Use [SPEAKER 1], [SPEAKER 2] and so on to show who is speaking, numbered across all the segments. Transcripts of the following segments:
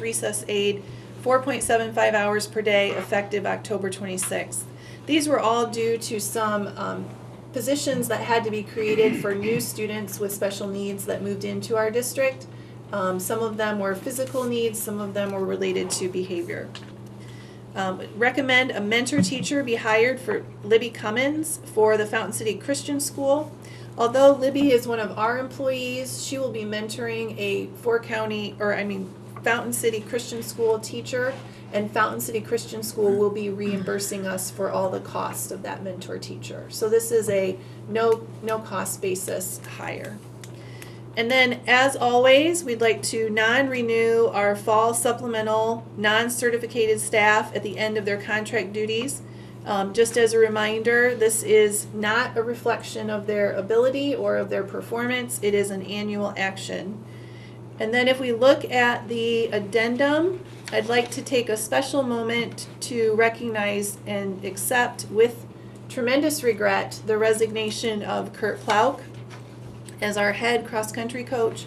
[SPEAKER 1] recess aid, four point seven five hours per day, effective October twenty-sixth. These were all due to some, um, positions that had to be created for new students with special needs that moved into our district. Um, some of them were physical needs, some of them were related to behavior. Um, recommend a mentor teacher be hired for Libby Cummins for the Fountain City Christian School. Although Libby is one of our employees, she will be mentoring a four county, or I mean, Fountain City Christian School teacher. And Fountain City Christian School will be reimbursing us for all the cost of that mentor teacher. So this is a no, no cost basis hire. And then, as always, we'd like to non-renew our fall supplemental, non-certificated staff at the end of their contract duties. Um, just as a reminder, this is not a reflection of their ability or of their performance. It is an annual action. And then if we look at the addendum, I'd like to take a special moment to recognize and accept with tremendous regret the resignation of Kurt Plauk as our head cross country coach.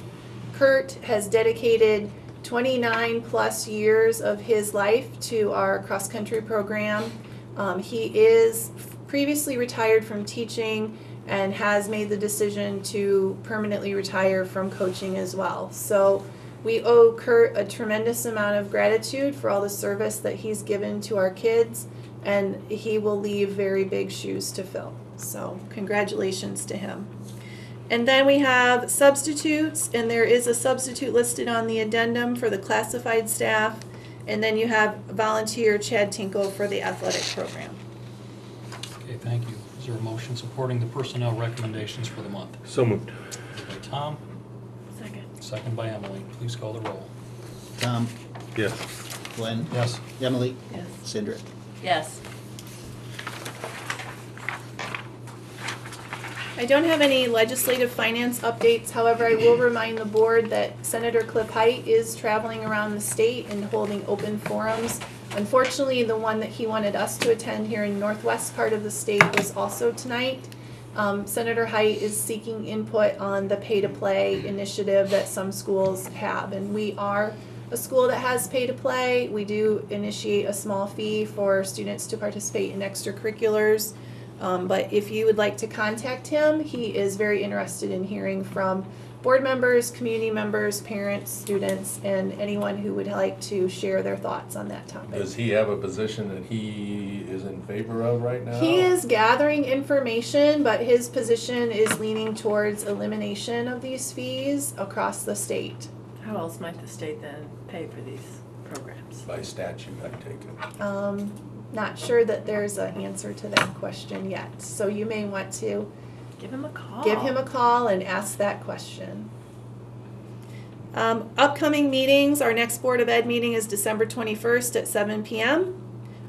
[SPEAKER 1] Kurt has dedicated 29 plus years of his life to our cross country program. Um, he is previously retired from teaching and has made the decision to permanently retire from coaching as well. So we owe Kurt a tremendous amount of gratitude for all the service that he's given to our kids, and he will leave very big shoes to fill. So, congratulations to him. And then we have substitutes, and there is a substitute listed on the addendum for the classified staff. And then you have volunteer Chad Tinkle for the athletic program.
[SPEAKER 2] Okay, thank you. Is there a motion supporting the personnel recommendations for the month?
[SPEAKER 3] So moved.
[SPEAKER 2] Moved by Tom,
[SPEAKER 1] Second.
[SPEAKER 2] second by Emily. Please call the roll.
[SPEAKER 4] Tom,
[SPEAKER 3] Yes.
[SPEAKER 4] Glenn,
[SPEAKER 2] Yes.
[SPEAKER 4] Emily,
[SPEAKER 1] Yes.
[SPEAKER 4] Cindric.
[SPEAKER 5] Yes.
[SPEAKER 1] I don't have any legislative finance updates, however, I will remind the board that Senator Cliff Height is traveling around the state and holding open forums. Unfortunately, the one that he wanted us to attend here in northwest part of the state was also tonight. Um, Senator Height is seeking input on the pay-to-play initiative that some schools have, and we are a school that has pay-to-play. We do initiate a small fee for students to participate in extracurriculars. Um, but if you would like to contact him, he is very interested in hearing from board members, community members, parents, students, and anyone who would like to share their thoughts on that topic.
[SPEAKER 6] Does he have a position that he is in favor of right now?
[SPEAKER 1] He is gathering information, but his position is leaning towards elimination of these fees across the state.
[SPEAKER 5] How else might the state then pay for these programs?
[SPEAKER 6] By statute, I take it.
[SPEAKER 1] Um, not sure that there's an answer to that question yet, so you may want to
[SPEAKER 5] Give him a call.
[SPEAKER 1] give him a call and ask that question. Um, upcoming meetings, our next Board of Ed meeting is December twenty-first at seven PM.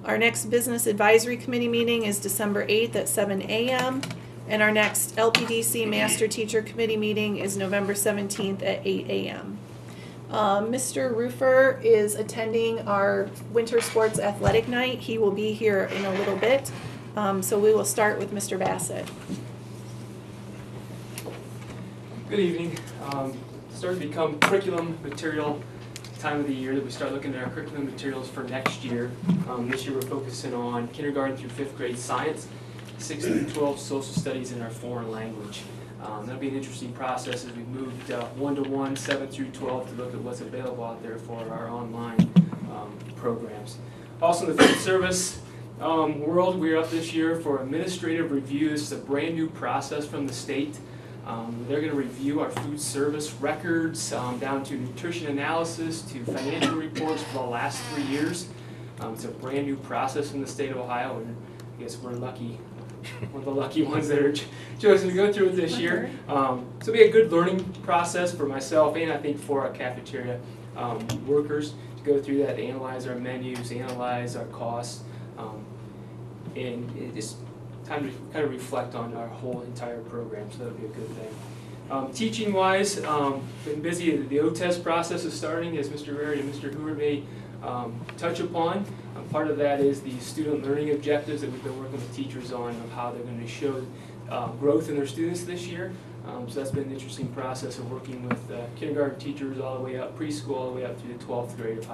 [SPEAKER 1] Our next Business Advisory Committee meeting is December eighth at seven AM. And our next LPDC Master Teacher Committee meeting is November seventeenth at eight AM. Um, Mr. Roofer is attending our Winter Sports Athletic Night. He will be here in a little bit. Um, so we will start with Mr. Bassett.
[SPEAKER 7] Good evening. Um, starting to become curriculum material time of the year that we start looking at our curriculum materials for next year. Um, this year we're focusing on kindergarten through fifth grade science, sixth through twelve social studies, and our foreign language. Um, that'll be an interesting process as we moved uh, one to one, seven through twelve to look at what's available out there for our online um, programs. Also in the food service um, world, we're up this year for administrative review. This is a brand new process from the state. Um, they're going to review our food service records um, down to nutrition analysis to financial reports for the last three years. Um, it's a brand new process in the state of Ohio, and I guess we're lucky, one of the lucky ones that are ch- chosen to go through it this year. Um, so it'll be a good learning process for myself and I think for our cafeteria um, workers to go through that, analyze our menus, analyze our costs, um, and it's time to kind of reflect on our whole entire program, so that'll be a good thing. Um, teaching wise, um, been busy, the O-test process is starting, as Mr. Rary and Mr. Hoover may, um, touch upon. Um, part of that is the student learning um, objectives that we've been working with teachers on, of how they're gonna show, uh, growth in their students this year. Um, so that's been an interesting process of working with uh, kindergarten teachers all the way up, preschool all the way up through the 12th grade of how